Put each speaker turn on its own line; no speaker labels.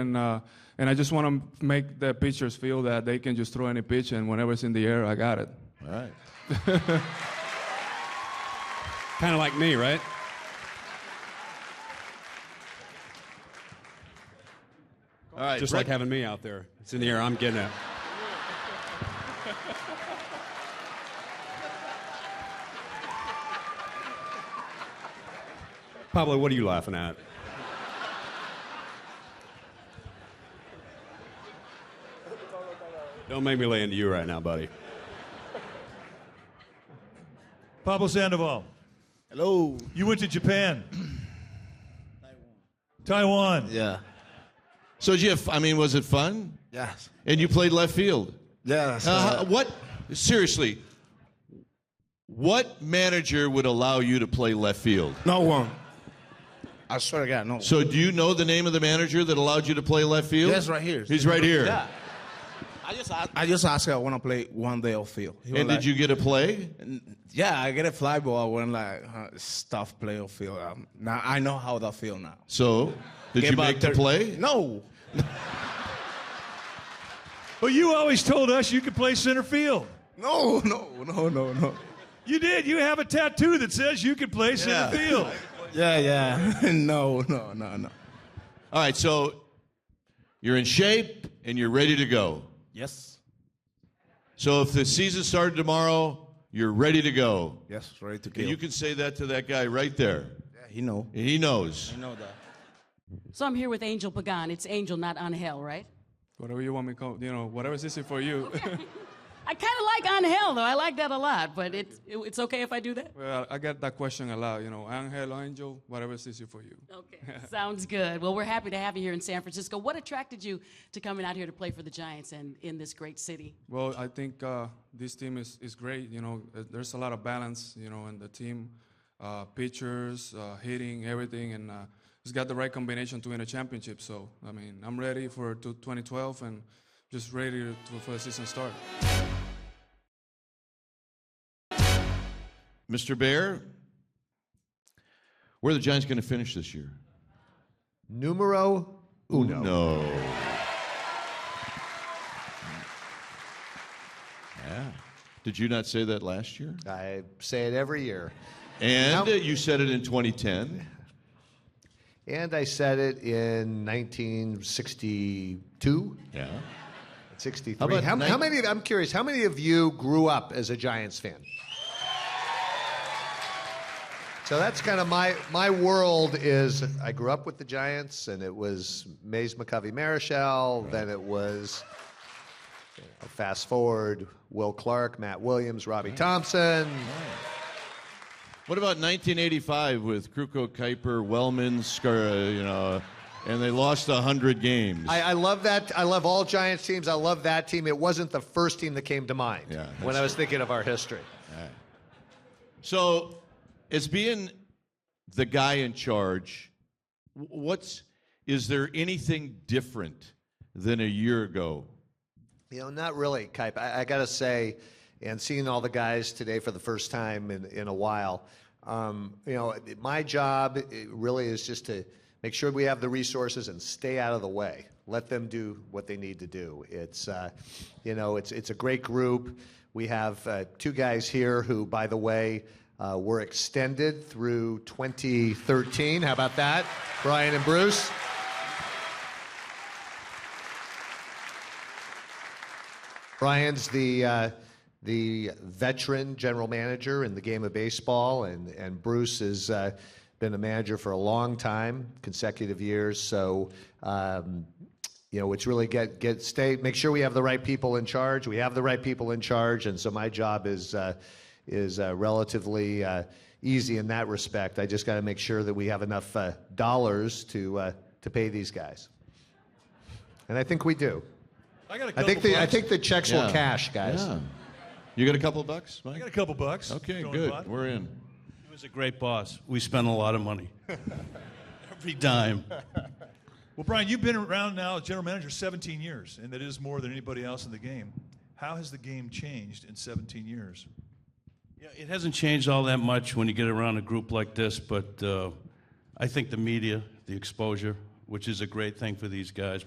And, uh, and I just want to make the pitchers feel that they can just throw any pitch, and whenever it's in the air, I got it.
All right.
Kind of like me, right?
All right.
Just like
Brett,
having me out there. It's in the air. I'm getting it. Pablo, what are you laughing at? Don't make me lay into you right now, buddy.
Pablo Sandoval,
hello.
you went to Japan. Taiwan.
Yeah.
So, did you have, I mean, was it fun?
Yes.
And you played left field.
Yes.
Uh,
Uh-huh.
how- what? Seriously, what manager would allow you to play left field?
no one. I swear to God, no.
So, do you know the name of the manager that allowed you to play left field?
Yes, right here.
He's right here.
Yeah. I just I, I just asked her I want to play one day off field. He was
And
like,
did you get a play?
Yeah, I get a fly ball. I went like huh, stuff play off field. Um, now I know how that feel now.
So, did
Get
you
about
make the
thir-
play?
No.
Well, you always told us you could play center field.
No, no, no, no, no.
You did. You have a tattoo that says you could play center
Yeah.
field.
Yeah, yeah. no, no, no, no.
All right, so you're in shape and you're ready to go.
Yes.
So if the season started tomorrow, you're ready to go.
Yes, ready to kill.
And you can say that to that guy right there.
yeah, he know.
And he knows.
know that.
So I'm here with Angel Pagan. It's Angel, not Angel, right?
Whatever you want me to call, you know, whatever's easy for you.
I kind of like Angel, though. I like that a lot, but it's, it, it's okay if I do that?
well, I get that question a lot, you know, Angel, Angel, whatever's easy for you.
Okay. Sounds good. Well, we're happy to have you here in San Francisco. What attracted you to coming out here to play for the Giants and in this great city?
Well, I think uh, this team is, is great. You know, Uh, there's a lot of balance, you know, in the team, uh, pitchers, uh, hitting, everything, and uh, it's got the right combination to win a championship. So, I mean, I'm ready for to 2012 and just ready to, for the season start.
Mr. Bear, where are the Giants going to finish this year?
Numero uno.
No. Yeah. Did you not say that last year?
I say it every year.
And uh, you said it in 2010.
And I said it in 1962,
Yeah. How
63. How,
about
how,
nine-
many, of- I'm curious, how many of you grew up as a Giants fan? So that's kind of my, my world is I grew up with the Giants, and it was Mays McCovey Marichal, then it was you know, fast forward Will Clark, Matt Williams, Robbie Thompson.
What about 1985 with Kruko, Kuiper, Wellman, Scar, uh, you know, and they lost 100 games?
I, I love that. I love all Giants teams. I love that team. It wasn't the first team that came to mind
Yeah, that's
when I was thinking of our history.
So, as being the guy in charge, wh- what's is there anything different than a year ago?
You know, not really, Kipe. I, I got to say, and seeing all the guys today for the first time in, in a while, um, you know, it- my job it really is just to make sure we have the resources and stay out of the way. Let them do what they need to do. It's, uh, you know, it's it's a great group. We have uh, two guys here who, by the way, uh, were extended through 2013. How about that, Brian and Bruce? Brian's the uh, the veteran general manager in the game of baseball, and and Bruce has uh, been a manager for a long time, consecutive years. So. Um, you know, it's really get get stay. Make sure we have the right people in charge. We have the right people in charge, and so my job is uh, is uh, relatively uh, easy in that respect. I just got to make sure that we have enough uh, dollars to uh, to pay these guys, and I think we do.
I got a couple
I think the I
bucks.
think the checks will cash, guys.
Yeah. You got a couple bucks, Mike?
I got a couple bucks.
okay,
Going
good.
bot.
We're in.
He was a great boss. We spent a lot of money. Every dime.
Well, Brian, you've been around now as general manager 17 years, and that is more than anybody else in the game. How has the game changed in 17 years?
Yeah, it hasn't changed all that much when you get around a group like this, but uh, I think the media, the exposure, which is a great thing for these guys,